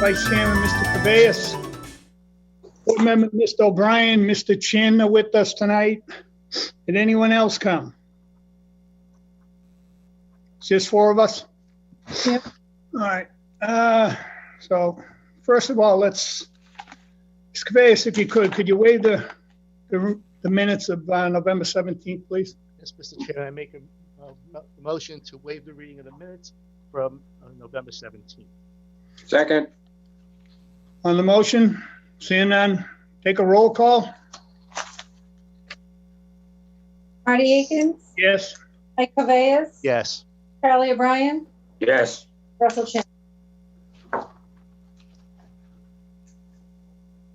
Vice Chairman, Mr. Cabeas. Board member, Mr. O'Brien, Mr. Chin are with us tonight. Did anyone else come? It's Just four of us? Yep. All right, uh, so first of all, let's, Mr. Cabeas, if you could, could you waive the, the the minutes of uh, November 17th, please? Yes, Mr. Chair, I make a, a mo- motion to waive the reading of the minutes from uh, November 17th. Second, On the motion, seeing none, take a roll call? Marty Akins, Yes. Mike Cabeas, Yes. Charlie O'Brien, yes. Russell Chin. Did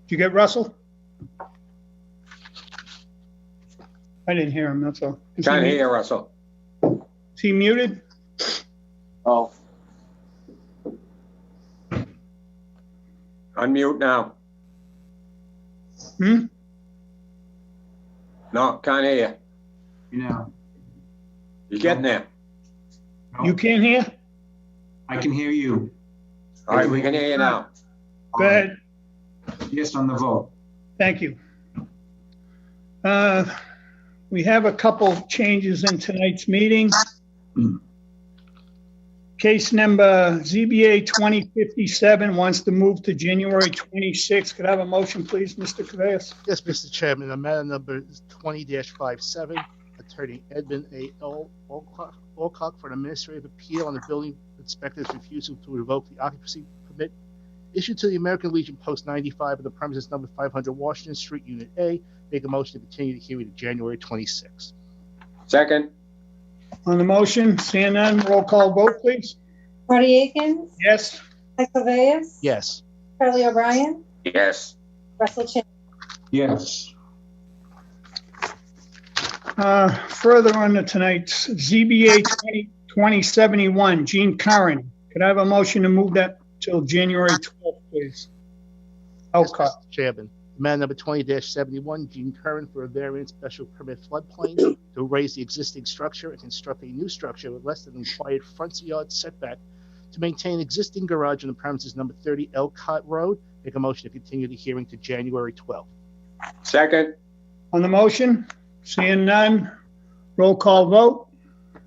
you get Russell? I didn't hear him, that's all. Is he Can't mu- hear Russell. Is he muted? Oh. Unmute now. Hmm? No, can't hear you. You know, You're getting there. no, You can't hear? I can hear you. All right, we can hear you now. Go ahead, Um, Yes, on the vote. thank you. Uh, We have a couple changes in tonight's meeting. Case number ZBA 2057 wants to move to January 26th. Could I have a motion, please, Mr. Cabeas? Yes, Mr. Chairman, on matter number 20-57, Attorney Edmund A. Al- Alcock Alcock for an administrative appeal on the building inspector's refusal to revoke the occupancy permit issued to the American Legion Post 95 of the premises number 500 Washington Street, Unit A. Make a motion to continue the hearing to January 26th. Second, On the motion, seeing none, roll call vote, please. Marty Akins, Yes? Mike Cabeas, Yes. Charlie O'Brien, yes. Russell Chin. Yes, Uh, Further on to tonight's ZBA 20 2071, Gene Curran. Could I have a motion to move that till January 12th, please? Okay. Yes, Mr. Chairman, amendment number twenty seventy-one, Gene Curran for a variance special permit floodplain to raise the existing structure and construct a new structure with less than required front yard setback to maintain existing garage on the premises number thirty Elcott Road. Make a motion to continue the hearing to January twelfth. Second, On the motion, seeing none, roll call vote.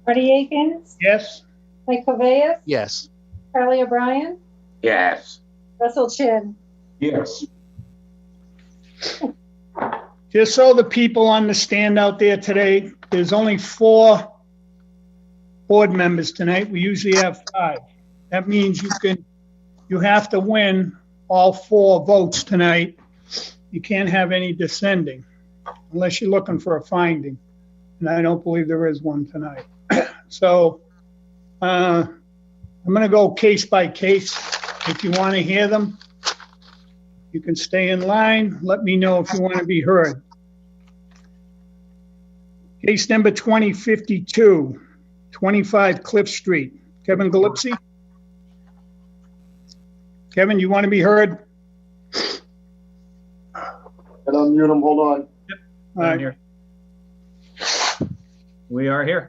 Marty Akins, Yes? Mike Cabeas, Yes. Charlie O'Brien, yes. Russell Chin. yes, Just so the people understand out there today, there's only four board members tonight. We usually have five. That means you can, you have to win all four votes tonight. You can't have any descending unless you're looking for a finding. And I don't believe there is one tonight. So, uh, I'm gonna go case by case. If you want to hear them, you can stay in line. Let me know if you want to be heard. Case number 2052, 25 Cliff Street. Kevin Galipsey? Kevin, you want to be heard? And unmute them, hold on. All right. I'm here. We are here.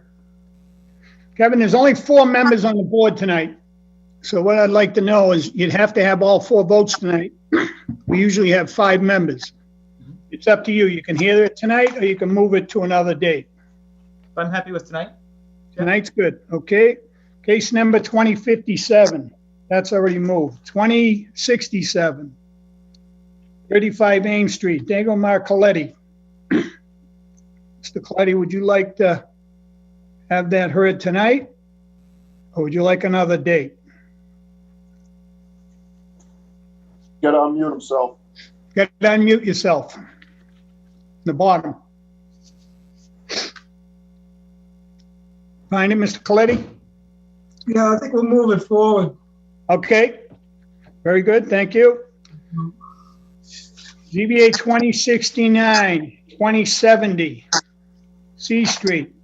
Kevin, there's only four members on the board tonight. So what I'd like to know is you'd have to have all four votes tonight. We usually have five members. It's up to you. You can hear it tonight or you can move it to another date. I'm happy with tonight. Tonight's good, okay? Case number 2057, that's already moved. 2067, 35 Ames Street, Dango Marcoletti. Mr. Coletti, would you like to have that heard tonight? Or would you like another date? Gotta unmute himself. Get, unmute yourself. The bottom. Find it, Mr. Coletti? Yeah, I think we're moving forward. Okay, very good, thank you. ZBA 2069, 2070, C Street.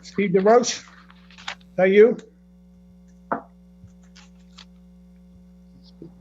Steve DeRoche, is that you?